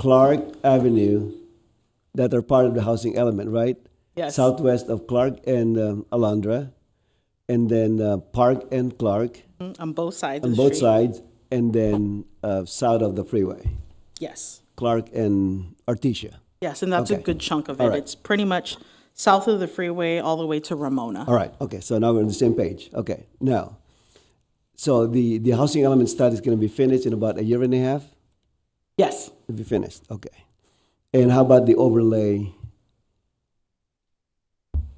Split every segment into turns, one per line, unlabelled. Clark Avenue that are part of the housing element, right?
Yes.
Southwest of Clark and um, Alondra, and then uh, Park and Clark
Mm, on both sides
on
of the
both
street.
sides, and then uh, south of the freeway,
Yes.
Clark and Artesia.
Yes, and that's a
Okay.
good chunk of
All
it.
right.
It's pretty much south of the freeway all the way to Ramona.
All right. Okay. So now we're on the same page. Okay. Now, so the the housing element study is going to be finished in about a year and a half.
Yes.
It'll be finished. Okay. And how about the overlay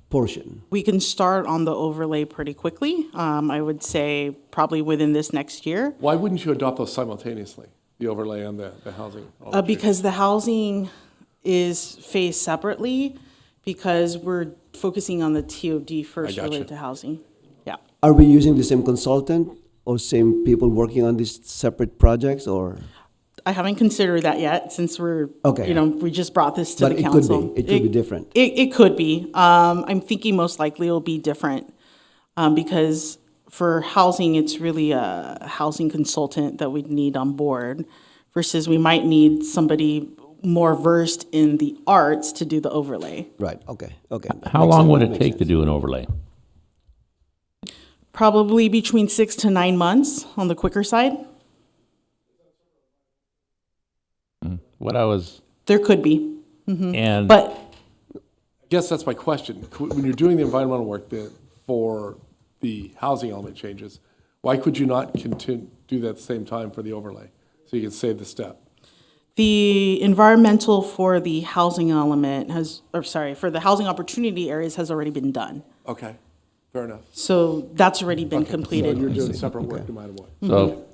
portion?
We can start on the overlay pretty quickly. Um, I would say probably within this next year.
Why wouldn't you adopt those simultaneously, the overlay and the, the housing?
Uh, because the housing is phased separately because we're focusing on the TOD first
gotcha.
related to housing. Yeah.
Are we using the same consultant or same people working on these separate projects or?
I haven't considered that yet since we're,
Okay.
you know, we just brought this to
But
the
it could be.
council.
It could be different.
It, it could be. Um, I'm thinking most likely it'll be different um, because for housing, it's really a housing consultant that we'd need on board versus we might need somebody more versed in the arts to do the overlay.
Right, okay, okay.
How long would it take to do an overlay?
Probably between six to nine months on the quicker side.
What I was,
There could be,
and
but
I guess that's my question. Could- When you're doing the environmental work the, for the housing element changes, why could you not continue, do that at the same time for the overlay? So you can save the step.
The environmental for the housing element has, or sorry, for the housing opportunity areas has already been done.
Okay, fair enough.
So that's already been
So
completed.
you're doing separate work no matter what.
so,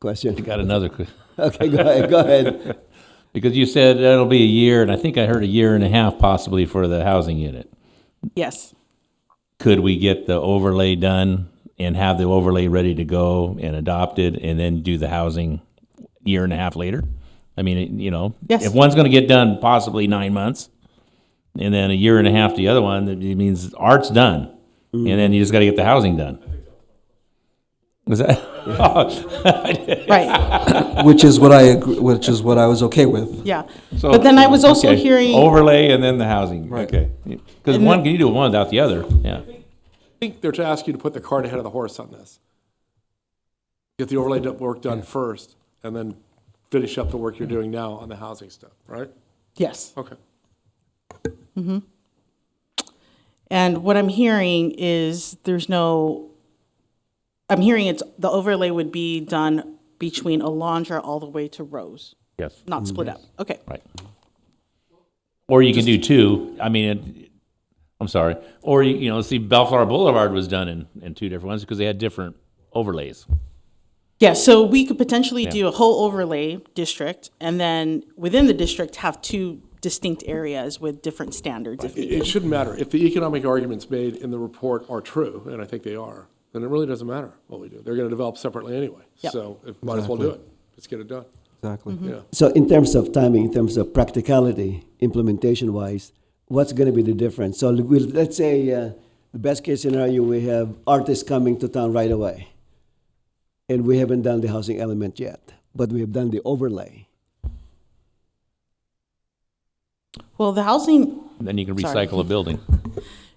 Question.
got another, que-
Okay, go ahead, go ahead.
because you said it'll be a year, and I think I heard a year and a half possibly for the housing unit.
Yes.
Could we get the overlay done and have the overlay ready to go and adopted, and then do the housing year and a half later? I mean, it- you know,
Yes.
if one's gonna get done possibly nine months, and then a year and a half to the other one, that means art's done. And then you just gotta get the housing done. Was that?
Right.
which is what I agree, which is what I was okay with.
Yeah.
So-
But then I was also
okay,
hearing.
overlay and then the housing.
Right.
Okay, because one can you do one without the other? Yeah.
I think they're to ask you to put the cart ahead of the horse on this. Get the overlay do- work done first, and then finish up the work you're doing now on the housing stuff, right?
Yes.
Okay.
And what I'm hearing is there's no, I'm hearing it's, the overlay would be done between Alondra all the way to Rose,
Yes.
not split up. Okay.
Right. Or you can do two. I mean, it, I'm sorry. Or you, you know, see, Bellflower Boulevard was done in, in two different ones because they had different overlays.
Yeah, so we could potentially do a whole overlay district and then within the district have two distinct areas with different standards. if
It, it shouldn't matter. If the economic arguments made in the report are true, and I think they are, then it really doesn't matter what we do. They're gonna develop separately anyway.
Yep.
So it might as well do it. Let's get it done.
Exactly.
Yeah.
So in terms of timing, in terms of practicality, implementation wise, what's gonna be the difference? So we'll, let's say, uh, the best case scenario, we have artists coming to town right away. And we haven't done the housing element yet, but we have done the overlay.
Well, the housing,
Then you can
Sorry.
recycle a building.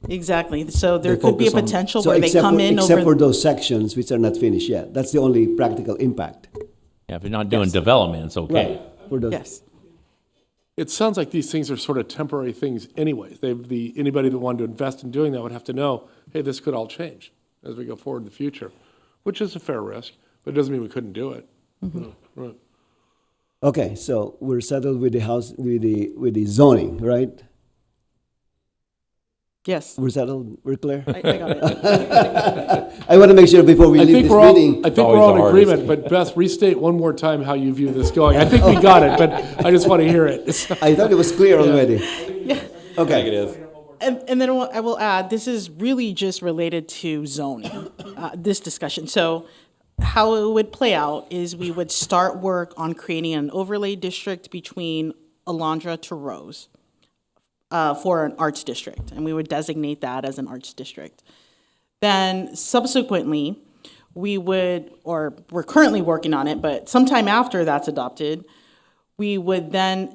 exactly, so there
They
could be a
focus on-
potential
So
where they
except
come
for-
in
Except for
over,
those sections which are not finished yet. That's the only practical impact.
Yeah, if you're not doing development, it's okay.
For those-
yes,
It sounds like these things are sort of temporary things anyways. They, the, anybody that wanted to invest in doing that would have to know, hey, this could all change as we go forward in the future, which is a fair risk, but it doesn't mean we couldn't do it. Right.
Okay, so we're settled with the house, with the, with the zoning, right?
yes.
We're settled, we're clear?
I I got it.
I want to make sure before we
I
leave
think
this
we're all,
meeting.
I think we're
always
all
the
in
hardest.
agreement, but Beth, restate one more time how you view this going. I think we got it, but I just want to hear it.
I thought it was clear already. Okay,
is.
And, and then I will- I will add, this is really just related to zoning, uh, this discussion. So how it would play out is we would start work on creating an overlay district between Alondra to Rose uh, for an arts district, and we would designate that as an arts district. Then subsequently, we would, or we're currently working on it, but sometime after that's adopted, we would then